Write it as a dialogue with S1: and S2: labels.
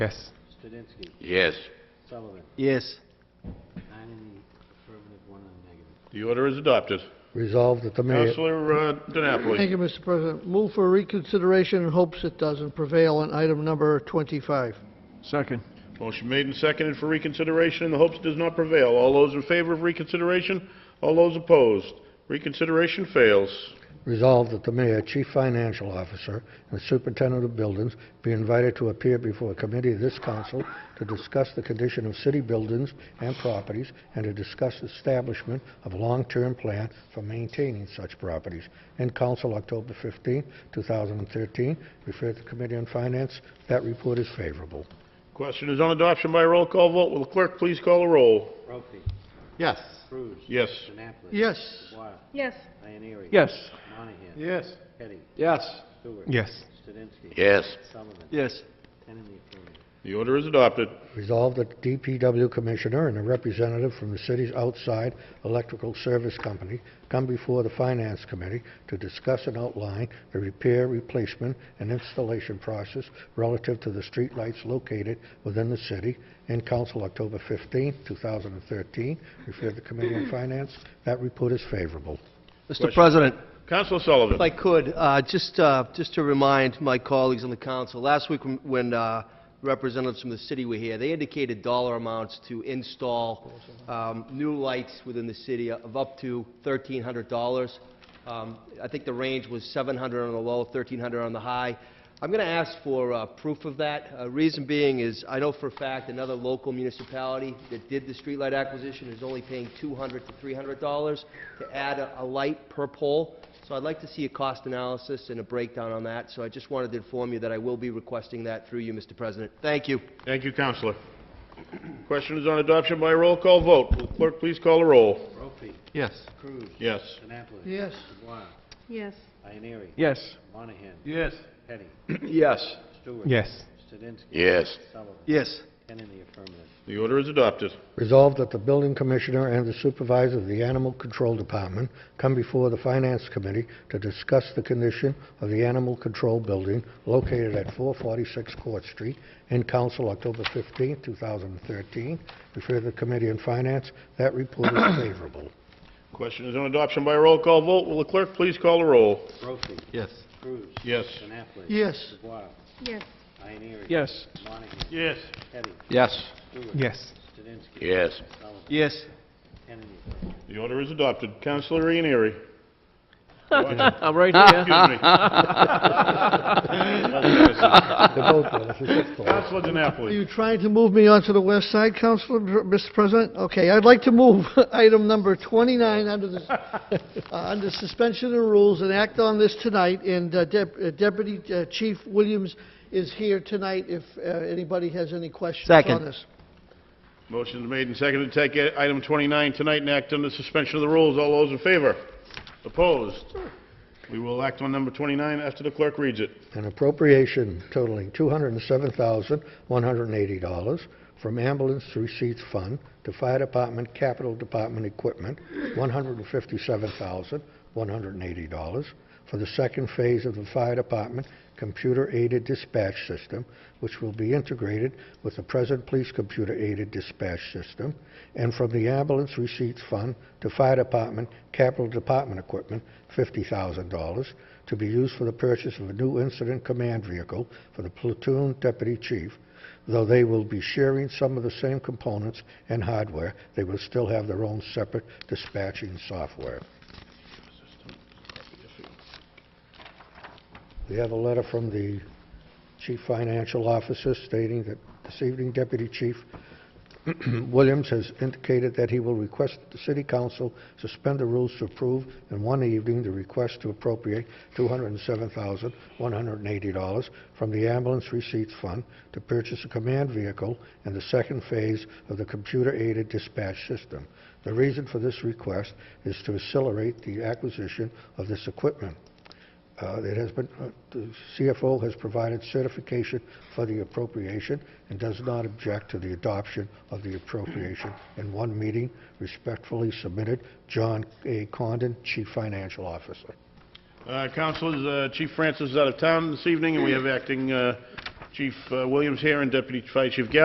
S1: Yes.
S2: Studinsky,
S3: Yes.
S2: Sullivan,
S4: Yes.
S2: nine in the affirmative, one in the negative.
S3: The order is adopted.
S5: Resolved that the mayor...
S3: Counselor uh, DiNapoli.
S6: Thank you, Mr. President. Move for reconsideration in hopes it doesn't prevail on item number 25.
S4: Second.
S3: Motion made and seconded for reconsideration in the hopes it does not prevail. All those in favor of reconsideration? All those opposed? Reconsideration fails.
S5: Resolved that the mayor, chief financial officer, and superintendent of buildings be invited to appear before a committee of this council to discuss the condition of city buildings and properties and to discuss establishment of long-term plan for maintaining such properties. In council, October 15, 2013, referred to Committee on Finance. That report is favorable.
S3: Question is on adoption by roll call vote. Will the clerk please call a roll?
S2: Brophy,
S4: Yes.
S2: Cruz.
S3: Yes.
S2: Annapolis.
S6: Yes.
S2: Dubois,
S7: yes,
S2: Ioneary.
S4: Yes.
S2: Monahan.
S4: Yes.
S2: Petty,
S4: Yes.
S2: Stewart.
S1: Yes.
S2: Studinsky.
S3: Yes.
S2: Sullivan.
S4: Yes.
S2: Ten in the affirmative.
S3: The order is adopted.
S5: Resolved that the DPW Commissioner and a representative from the city's outside electrical service company come before the Finance Committee to discuss and outline the repair, replacement, and installation process relative to the streetlights located within the city. In council, October 15, 2013. Referred to Committee on Finance. That report is favorable.
S4: Mr. President,
S3: Counselor Sullivan.
S4: if I could, uh, just, uh, just to remind my colleagues on the council, last week when- when uh, representatives from the city were here, they indicated dollar amounts to install um, new lights within the city of up to $1,300. Um, I think the range was 700 on the low, 1,300 on the high. I'm going to ask for uh, proof of that. Uh, Reason being is, I know for a fact, another local municipality that did the streetlight acquisition is only paying $200 to $300 to add a a light per pole. So I'd like to see a cost analysis and a breakdown on that. So I just wanted to inform you that I will be requesting that through you, Mr. President. Thank you.
S3: Thank you, Counselor. Question is on adoption by roll call vote. Will the clerk please call a roll?
S2: Brophy,
S1: Yes.
S2: Cruz.
S3: Yes.
S2: Annapolis.
S6: Yes.
S2: Dubois,
S7: yes,
S2: Ioneary.
S1: Yes.
S2: Monahan.
S4: Yes.
S2: Petty,
S4: Yes.
S2: Stewart.
S1: Yes.
S2: Studinsky.
S3: Yes.
S2: Sullivan.
S4: Yes.
S2: Ten in the affirmative.
S3: The order is adopted.
S5: Resolved that the building commissioner and the supervisor of the Animal Control Department come before the Finance Committee to discuss the condition of the Animal Control Building located at 446 Court Street in council October 15, 2013. Refer to the Committee on Finance. That report is favorable.
S3: Question is on adoption by roll call vote. Will the clerk please call a roll?
S2: Brophy,
S1: Yes.
S2: Cruz.
S3: Yes.
S2: Annapolis.
S6: Yes.
S2: Dubois,
S7: yes,
S2: Ioneary.
S1: Yes.
S2: Monahan.
S3: Yes.
S2: Petty,
S4: Yes.
S2: Stewart.
S1: Yes.
S2: Studinsky.
S3: Yes.
S2: Sullivan.
S4: Yes.
S2: Ten in the affirmative.
S3: The order is adopted. Counselor Ianieri.
S1: I'm right here.
S3: Excuse me.
S5: The vote, Dennis, is up for it.
S3: Counselor
S6: Are
S3: DiNapoli.
S6: you trying to move me onto the west side, Councilor, Mr. President? Okay, I'd like to move item number 29 under the, uh, under suspension of rules and act on this tonight, and uh, Dep- uh, Deputy uh, Chief Williams is here tonight if uh, anybody has any questions on
S4: Second.
S6: this.
S3: Motion's made and seconded to take i- item 29 tonight and act under suspension of the rules. All those in favor? Opposed? We will act on number 29 after the clerk reads it.
S5: an appropriation totaling $207,180 from ambulance receipts fund to fire department capital department equipment, $157,180 for the second phase of the fire department computer-aided dispatch system, which will be integrated with the present police computer-aided dispatch system, and from the ambulance receipts fund to fire department capital department equipment, $50,000 to be used for the purchase of a new incident command vehicle for the platoon deputy chief. Though they will be sharing some of the same components and hardware, they will still have their own separate dispatching software. We have a letter from the chief financial officer stating that this evening Deputy Chief Williams has indicated that he will request that the city council suspend the rules to approve in one evening the request to appropriate $207,180 from the ambulance receipts fund to purchase a command vehicle and the second phase of the computer-aided dispatch system. The reason for this request is to accelerate the acquisition of this equipment. Uh, It has been, uh, the CFO has provided certification for the appropriation and does not object to the adoption of the appropriation in one meeting. Respectfully submitted, John A. Condon, Chief Financial Officer.
S3: Uh, Counselors, uh, Chief Francis is out of town this evening, and we have acting uh, Chief uh, Williams here and Deputy Fire Chief Gallo.